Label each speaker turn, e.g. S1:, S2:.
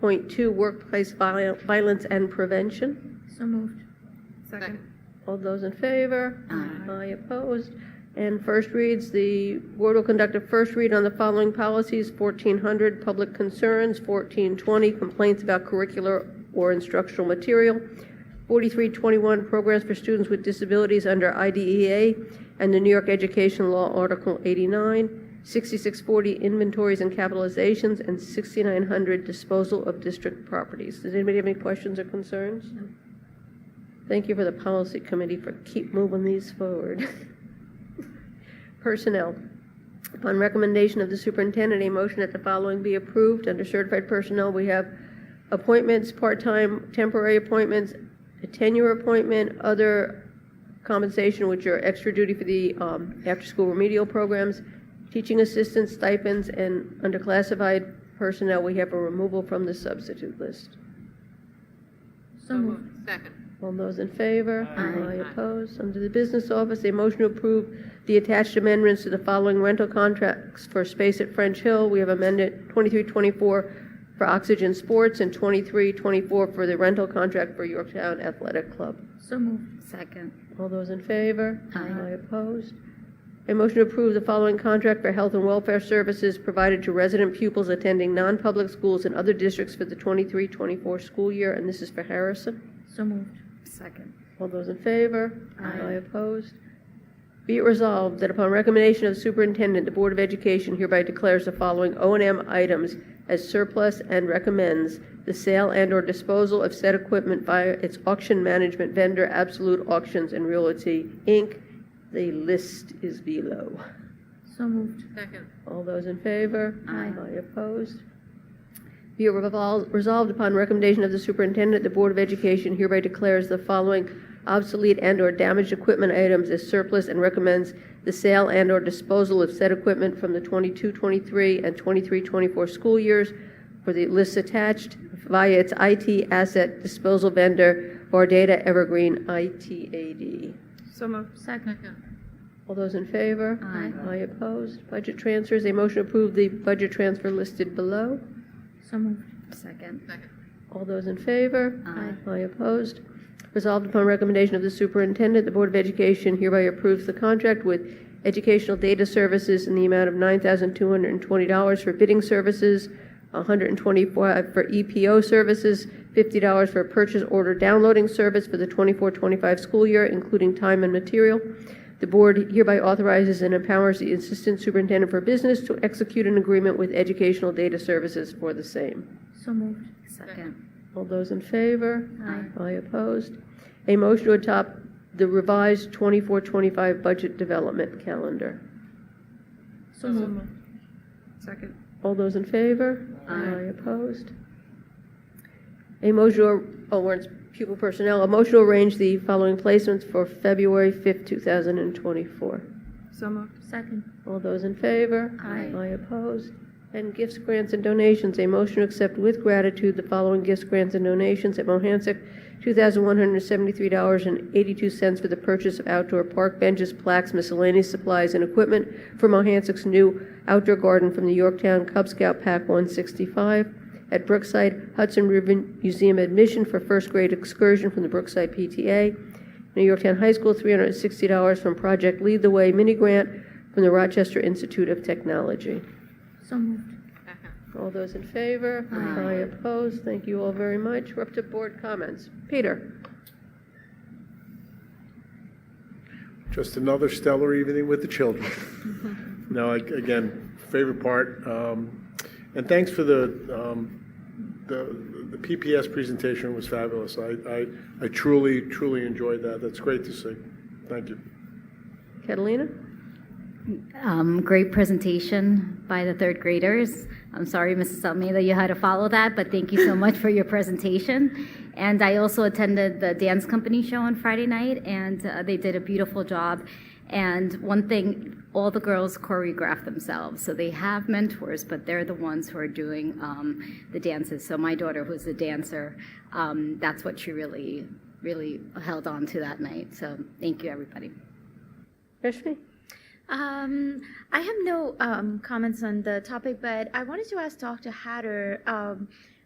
S1: 30.2 Workplace viol- Violence and Prevention.
S2: So moved.
S3: Second.
S1: All those in favor? Aye. opposed? And first reads, the board will conduct a first read on the following policies: 1400, Public Concerns, 1420, Complaints about Curricular or Instructional Material, 4321, Programs for Students with Disabilities under IDEA and the New York Education Law, Article 89, 6640, Inventories and Capitalizations, and 6900, Disposal of District Properties. Does anybody have any questions or concerns? Thank you for the policy committee for keep moving these forward. Personnel. Upon recommendation of the superintendent, a motion that the following be approved. Under certified personnel, we have appointments, part-time, temporary appointments, a tenure appointment, other compensation, which are extra duty for the um, after-school remedial programs, teaching assistants, stipends, and under classified personnel, we have a removal from the substitute list.
S2: So moved.
S3: Second.
S1: All those in favor?
S2: Aye.
S1: Aye opposed? Under the business office, a motion to approve the attached amendments to the following rental contracts for space at French Hill. We have amended 2324 for Oxygen Sports and 2324 for the rental contract for Yorktown Athletic Club.
S2: So moved.
S4: Second.
S1: All those in favor?
S4: Aye.
S1: opposed? A motion to approve the following contract for health and welfare services provided to resident pupils attending non-public schools in other districts for the 23-24 school year, and this is for Harrison.
S2: So moved.
S4: Second.
S1: All those in favor?
S4: Aye.
S1: opposed? Be it resolved that upon recommendation of the superintendent, the Board of Education hereby declares the following O and M items as surplus and recommends the sale and/or disposal of said equipment via its auction management vendor, Absolute Auctions and Realty, Inc. The list is below.
S2: So moved.
S3: Second.
S1: All those in favor?
S4: Aye.
S1: opposed? Be it revol- resolved upon recommendation of the superintendent, the Board of Education hereby declares the following obsolete and/or damaged equipment items as surplus and recommends the sale and/or disposal of said equipment from the 22-23 and 23-24 school years for the lists attached via its IT asset disposal vendor, Vardata Evergreen ITAD.
S3: So moved.
S2: Second.
S1: All those in favor?
S4: Aye.
S1: Aye opposed. Budget transfers, a motion to approve the budget transfer listed below.
S2: So moved.
S4: Second.
S3: Second.
S1: All those in favor?
S4: Aye.
S1: Aye opposed. Resolved upon recommendation of the superintendent, the Board of Education hereby approves the contract with Educational Data Services in the amount of $9,220 for bidding services, $125 for EPO services, $50 for purchase order downloading service for the 24-25 school year, including time and material. The board hereby authorizes and empowers the Assistant Superintendent for Business to execute an agreement with Educational Data Services for the same.
S2: So moved.
S4: Second.
S1: All those in favor? Aye. opposed? A motion to adopt the revised 24-25 budget development calendar.
S2: So moved.
S3: Second.
S1: All those in favor?
S4: Aye.
S1: opposed? A motion, to- oh, we're in pupil personnel, a motion to arrange the following placements for February 5th, 2024.
S3: So moved.
S2: Second.
S1: All those in favor?
S4: Aye.
S1: Aye opposed. And gifts, grants, and donations, a motion to accept with gratitude the following gifts, grants, and donations at Mohansick, $2,173.82 for the purchase of outdoor park benches, plaques, miscellaneous supplies, and equipment for Mohansick's new outdoor garden from the Yorktown Cub Scout Pack 165. At Brookside, Hudson River Museum admission for first grade excursion from the Brookside PTA. New Yorktown High School, $360 from Project Lead the Way mini grant from the Rochester Institute of Technology.
S2: So moved.
S3: Second.
S1: All those in favor?
S4: Aye.
S1: opposed? Thank you all very much. We're up to board comments. Peter?
S5: Just another stellar evening with the children. No, I- again, favorite part. um, And thanks for the, um, the the PPS presentation was fabulous. I I I truly, truly enjoyed that. That's great to see. Thank you.
S1: Catalina?
S4: Um, great presentation by the third graders. I'm sorry, Mrs. Almeida, you had to follow that, but thank you so much for your presentation. And I also attended the dance company show on Friday night, and uh, they did a beautiful job. And one thing, all the girls choreograph themselves, so they have mentors, but they're the ones who are doing um, the dances. So my daughter, who's a dancer, um, that's what she really, really held on to that night. So thank you, everybody.
S1: Rashmi?
S6: Um,
S2: Um, I have no um, comments on the topic, but I wanted to ask Dr. Hatter. Um,